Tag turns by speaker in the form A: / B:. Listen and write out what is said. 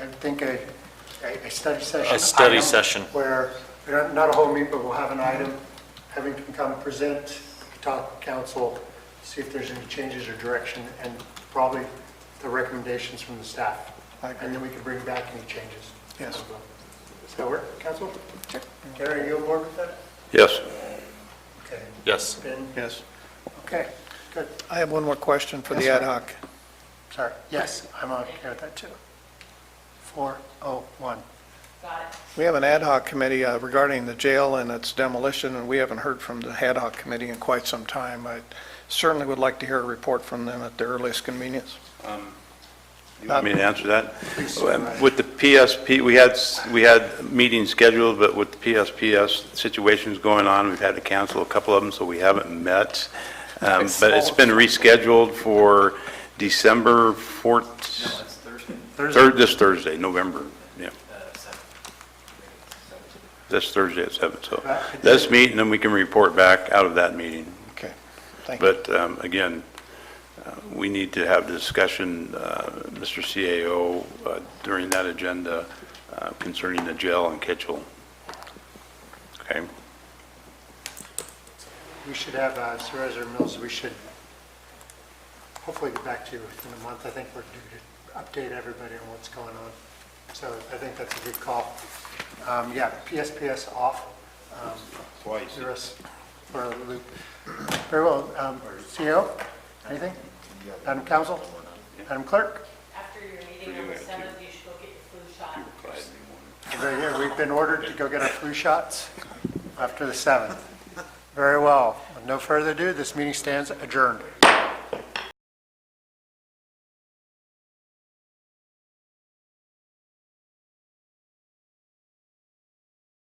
A: I think a, a- a study session.
B: A study
A: item
B: session.
A: Where, we don't- not a whole meeting, but we'll have an item, having to come and present, talk to council, see if there's any changes or direction, and probably the recommendations from the staff.
C: I agree.
A: And then we can bring back any changes.
C: Yes.
A: Does that work, council? Gary, are you on board with that?
D: Yes.
A: Okay.
B: Yes.
A: Ben?
C: Yes.
A: Okay, good.
C: I have one more question for the
A: Yes,
C: ad
A: sir.
C: hoc.
A: Sorry. Yes, I'm on here with that too. 401.
C: We have an ad hoc committee uh, regarding the jail and its demolition, and we haven't heard from the ad hoc committee in quite some time. I certainly would like to hear a report from them at the earliest convenience.
D: You want me to answer that? Um, With the PSP, we had, we had meetings scheduled, but with the PSPS situations going on, we've had to cancel a couple of them, so we haven't met. Um, But it's been rescheduled for December 14th,
E: That's Thursday,
D: third, this Thursday, November, yeah,
E: uh, seven.
D: this Thursday at 7. So let's meet, and then we can report back out of that meeting.
C: Okay, thank you.
D: But um, again, uh, we need to have the discussion, uh, Mr. CAO, uh, during that agenda uh, concerning the jail and Kitchell. Okay?
A: We should have, uh, Supervisor Mills, we should hopefully get back to you within a month. I think we're due to update everybody on what's going on. So I think that's a good call. Um, Yeah, PSPS off. Twice. The rest for a loop. Very well. Um, CEO, anything? Madam Council? Madam Clerk?
F: After your meeting on the seventh, you should go get your flu shot.
A: Right here, we've been ordered to go get our flu shots after the 7th. Very well. With no further ado, this meeting stands adjourned.